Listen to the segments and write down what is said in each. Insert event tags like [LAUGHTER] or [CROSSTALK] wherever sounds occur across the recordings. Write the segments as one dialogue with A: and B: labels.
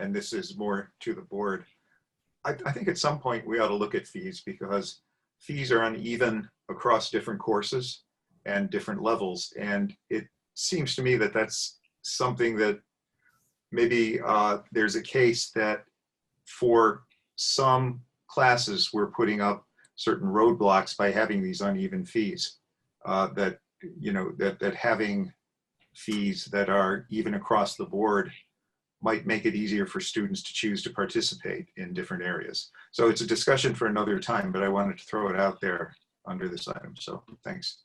A: and this is more to the board. I, I think at some point we ought to look at fees because fees are uneven across different courses and different levels. And it seems to me that that's something that maybe uh, there's a case that for some classes, we're putting up certain roadblocks by having these uneven fees. Uh, that, you know, that, that having fees that are even across the board might make it easier for students to choose to participate in different areas. So it's a discussion for another time, but I wanted to throw it out there under this item. So thanks.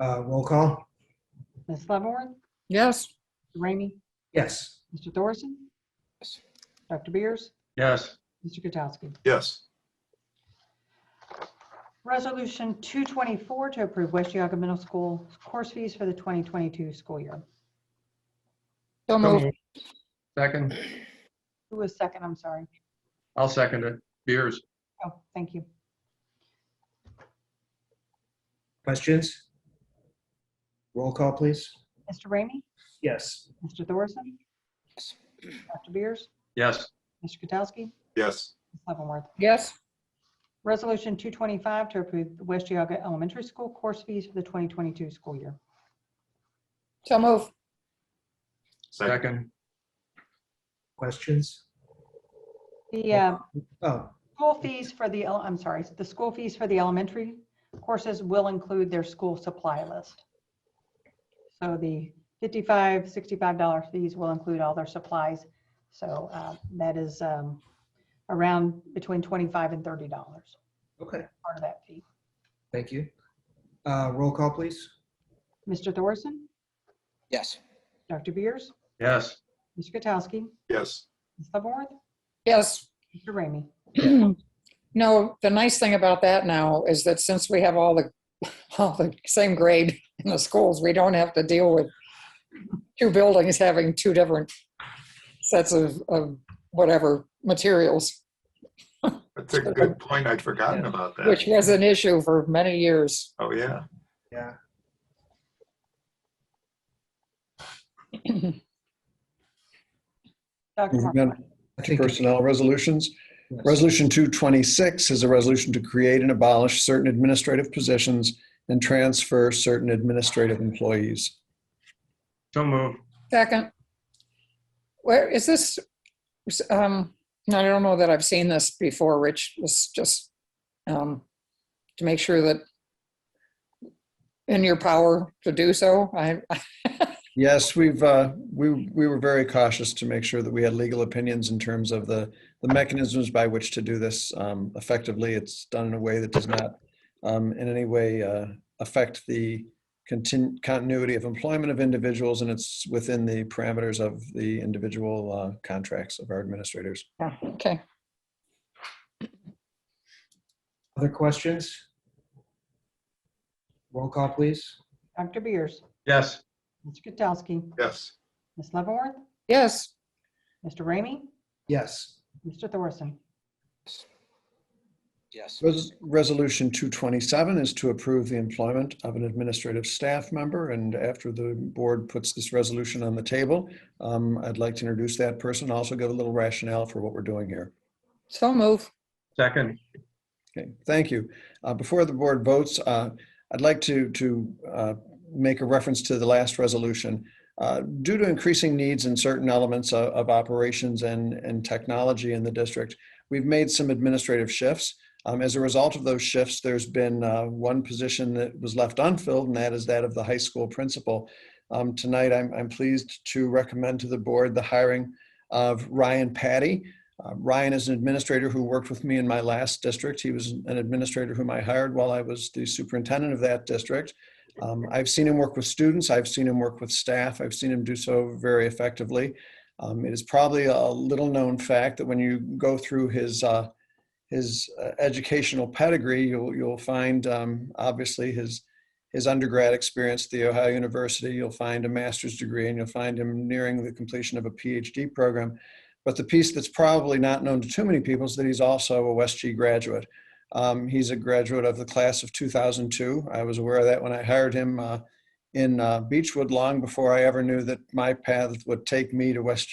B: Uh, Roll call?
C: Ms. Leavenworth,
D: Yes.
C: Rainey,
B: Yes.
C: Mr. Thorson, Dr. Beers,
E: Yes,
C: Mr. Katsowski.
A: Yes,
C: Resolution 224 to approve West Yaga Middle School course fees for the 2022 school year.
D: So moved.
E: second,
C: Who was second? I'm sorry.
E: I'll second it. Beers,
C: Oh, thank you.
B: Questions? Roll call, please.
C: Mr. Rainey,
B: Yes.
C: Mr. Thorson, Dr. Beers,
E: yes,
C: Mr. Katsowski,
A: yes,
C: Ms. Leavenworth.
D: Yes.
C: Resolution 225 to approve the West Yaga Elementary School course fees for the 2022 school year.
D: So moved.
A: second,
E: second,
B: Questions?
C: The uh,
B: Oh,
C: School fees for the, ele- I'm sorry, the school fees for the elementary courses will include their school supply list. So the $55, $65 fees will include all their supplies. So uh, that is um, around between $25 and $30, part
B: okay.
C: of that fee.
B: Thank you. Uh, Roll call, please.
C: Mr. Thorson,
F: Yes.
C: Dr. Beers,
E: yes,
C: Mr. Katsowski,
A: yes,
C: Ms. Leavenworth,
D: Yes.
C: Mr. Ramey.
D: [CLEARS THROAT] No, the nice thing about that now is that since we have all the, [LAUGHS] all the same grade in the schools, we don't have to deal with two buildings having two different sets of, of whatever materials,
A: that's a good point. I'd forgotten about
D: which
A: that.
D: was an issue for many years.
A: Oh, yeah,
B: Yeah.
C: Dr.
G: Moving
C: Markland.
B: I think-
G: Personnel resolutions. Resolution 226 is a resolution to create and abolish certain administrative positions and transfer certain administrative employees.
E: so move.
D: Second. Where is this? um, I don't know that I've seen this before, Rich. It's just um, to make sure that in your power to do so. I,
G: Yes, we've, uh, we, we were very cautious to make sure that we had legal opinions in terms of the, the mechanisms by which to do this um, effectively. It's done in a way that does not um, in any way uh, affect the contin- continuity of employment of individuals, and it's within the parameters of the individual uh, contracts of our administrators.
D: okay.
B: Other questions? Roll call, please.
C: Dr. Beers,
E: Yes,
C: Mr. Katsowski,
A: yes,
C: Ms. Leavenworth,
D: Yes.
C: Mr. Ramey,
B: Yes.
C: Mr. Thorson.
F: Yes.
G: Res- Resolution 227 is to approve the employment of an administrative staff member, and after the board puts this resolution on the table, um, I'd like to introduce that person, also give a little rationale for what we're doing here.
D: So move.
E: second,
G: Okay, thank you. Uh, Before the board votes, uh, I'd like to, to uh, make a reference to the last resolution. Uh, Due to increasing needs in certain elements of, of operations and, and technology in the district, we've made some administrative shifts. Um, As a result of those shifts, there's been uh, one position that was left unfilled, and that is that of the high school principal. Um, Tonight, I'm, I'm pleased to recommend to the board the hiring of Ryan Patty. Uh, Ryan is an administrator who worked with me in my last district. He was an administrator whom I hired while I was the superintendent of that district. Um, I've seen him work with students. I've seen him work with staff. I've seen him do so very effectively. Um, it is probably a little known fact that when you go through his uh, his uh, educational pedigree, you'll you'll find um, obviously his his undergrad experience at the Ohio University. You'll find a master's degree, and you'll find him nearing the completion of a PhD program. But the piece that's probably not known to too many people is that he's also a West G graduate. Um, he's a graduate of the class of 2002. I was aware of that when I hired him. Uh, in uh, Beechwood long before I ever knew that my path would take me to West